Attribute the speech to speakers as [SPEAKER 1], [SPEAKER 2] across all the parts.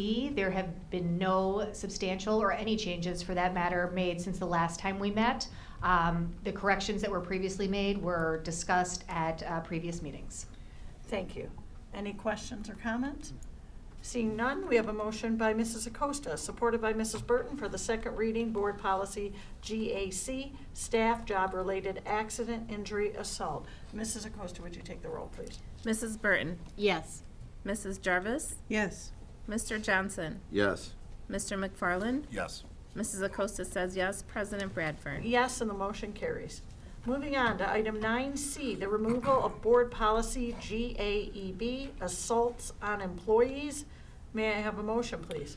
[SPEAKER 1] B, There have been no substantial or any changes for that matter made since the last time we met. Um, The corrections that were previously made were discussed at uh, previous meetings.
[SPEAKER 2] Thank you. Any questions or comments? Seeing none, we have a motion by Mrs. Acosta, supported by Mrs. Burton for the second reading, Board Policy GAC, Staff Job-Related Accident Injury Assault. Mrs. Acosta, would you take the roll, please?
[SPEAKER 3] Mrs. Burton.
[SPEAKER 4] Yes.
[SPEAKER 3] Mrs. Jarvis.
[SPEAKER 5] Yes.
[SPEAKER 3] Mr. Johnson.
[SPEAKER 6] Yes.
[SPEAKER 3] Mr. McFarland.
[SPEAKER 6] Yes.
[SPEAKER 3] Mrs. Acosta says yes. President Bradford.
[SPEAKER 2] Yes, and the motion carries. Moving on to item nine C, the removal of Board Policy GAEB, Assaults on Employees. May I have a motion, please?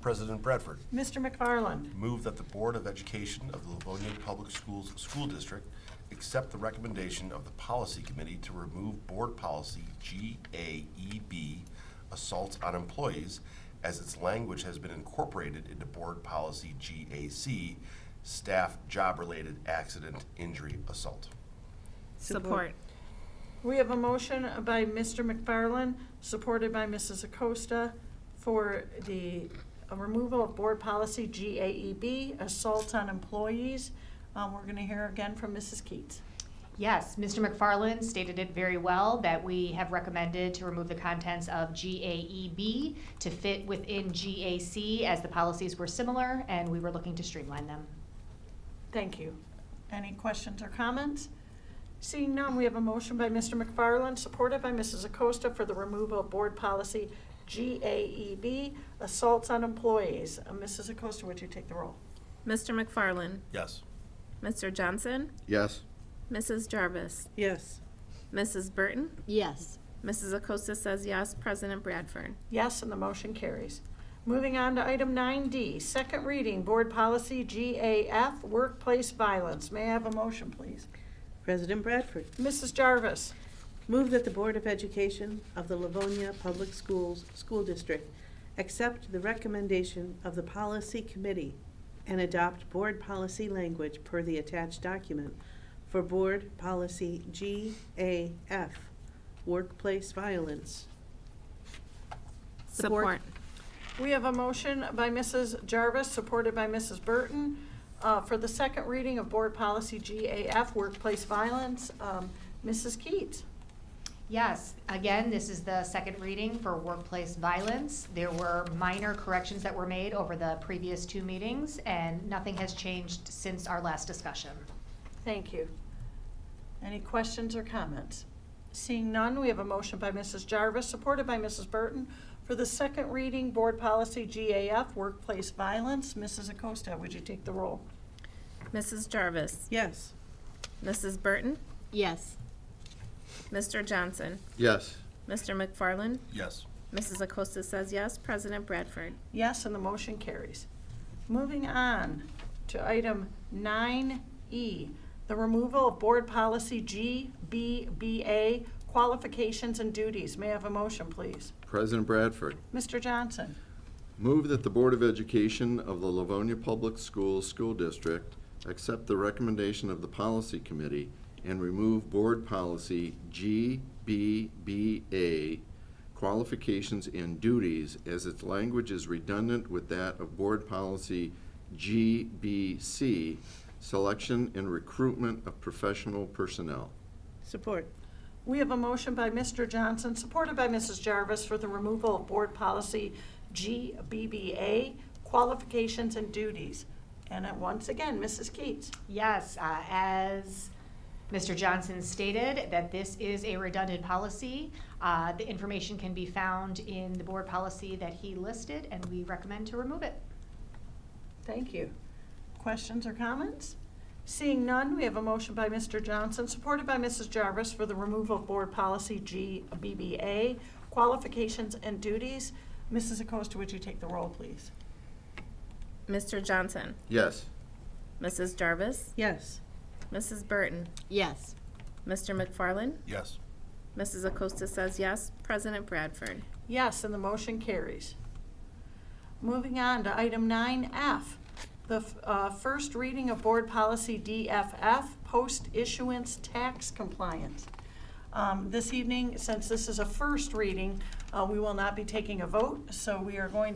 [SPEAKER 7] President Bradford,
[SPEAKER 2] Mr. McFarland?
[SPEAKER 7] move that the Board of Education of the Livonia Public Schools School District accept the recommendation of the Policy Committee to remove Board Policy GAEB, Assaults on Employees, as its language has been incorporated into Board Policy GAC, Staff Job-Related Accident Injury Assault.
[SPEAKER 3] Support.
[SPEAKER 2] We have a motion by Mr. McFarland, supported by Mrs. Acosta, for the removal of Board Policy GAEB, assault on employees. Um, We're going to hear again from Mrs. Keats.
[SPEAKER 1] Yes, Mr. McFarland stated it very well that we have recommended to remove the contents of GAEB to fit within GAC as the policies were similar and we were looking to streamline them.
[SPEAKER 2] Thank you. Any questions or comments? Seeing none, we have a motion by Mr. McFarland, supported by Mrs. Acosta, for the removal of Board Policy GAEB, assaults on employees. Uh, Mrs. Acosta, would you take the roll?
[SPEAKER 3] Mr. McFarland.
[SPEAKER 7] Yes.
[SPEAKER 3] Mr. Johnson.
[SPEAKER 6] Yes.
[SPEAKER 3] Mrs. Jarvis.
[SPEAKER 5] Yes.
[SPEAKER 3] Mrs. Burton.
[SPEAKER 4] Yes.
[SPEAKER 3] Mrs. Acosta says yes. President Bradford.
[SPEAKER 2] Yes, and the motion carries. Moving on to item 9D, second reading, Board Policy GAF, Workplace Violence. May I have a motion, please?
[SPEAKER 5] President Bradford,
[SPEAKER 2] Mrs. Jarvis.
[SPEAKER 5] move that the Board of Education of the Livonia Public Schools School District accept the recommendation of the Policy Committee and adopt board policy language per the attached document for Board Policy GAF, Workplace Violence.
[SPEAKER 4] Support.
[SPEAKER 2] We have a motion by Mrs. Jarvis, supported by Mrs. Burton, uh, for the second reading of Board Policy GAF, Workplace Violence. Um, Mrs. Keats.
[SPEAKER 1] Yes, again, this is the second reading for workplace violence. There were minor corrections that were made over the previous two meetings, and nothing has changed since our last discussion.
[SPEAKER 2] Thank you. Any questions or comments? Seeing none, we have a motion by Mrs. Jarvis, supported by Mrs. Burton, for the second reading, Board Policy GAF, Workplace Violence. Mrs. Acosta, would you take the roll?
[SPEAKER 3] Mrs. Jarvis.
[SPEAKER 5] Yes.
[SPEAKER 3] Mrs. Burton.
[SPEAKER 4] Yes.
[SPEAKER 3] Mr. Johnson.
[SPEAKER 6] Yes.
[SPEAKER 3] Mr. McFarland.
[SPEAKER 7] Yes.
[SPEAKER 3] Mrs. Acosta says yes. President Bradford.
[SPEAKER 2] Yes, and the motion carries. Moving on to item 9E, the removal of Board Policy GBBA, Qualifications and Duties. May I have a motion, please?
[SPEAKER 6] President Bradford,
[SPEAKER 2] Mr. Johnson?
[SPEAKER 6] move that the Board of Education of the Livonia Public Schools School District accept the recommendation of the Policy Committee and remove Board Policy GBBA qualifications and duties as its language is redundant with that of Board Policy GBC, selection and recruitment of professional personnel.
[SPEAKER 5] Support.
[SPEAKER 2] We have a motion by Mr. Johnson, supported by Mrs. Jarvis, for the removal of Board Policy GBBA, Qualifications and Duties. And uh, once again, Mrs. Keats?
[SPEAKER 1] Yes, uh, as Mr. Johnson stated, that this is a redundant policy. Uh, The information can be found in the board policy that he listed, and we recommend to remove it.
[SPEAKER 2] Thank you. Questions or comments? Seeing none, we have a motion by Mr. Johnson, supported by Mrs. Jarvis, for the removal of Board Policy GBBA, Qualifications and Duties. Mrs. Acosta, would you take the roll, please?
[SPEAKER 3] Mr. Johnson.
[SPEAKER 6] Yes.
[SPEAKER 3] Mrs. Jarvis.
[SPEAKER 5] Yes.
[SPEAKER 3] Mrs. Burton.
[SPEAKER 4] Yes.
[SPEAKER 3] Mr. McFarland.
[SPEAKER 7] Yes.
[SPEAKER 3] Mrs. Acosta says yes. President Bradford.
[SPEAKER 2] Yes, and the motion carries. Moving on to item 9F, the uh, first reading of Board Policy DFF, Post-Issuance Tax Compliance. Um, This evening, since this is a first reading, uh, we will not be taking a vote, so we are going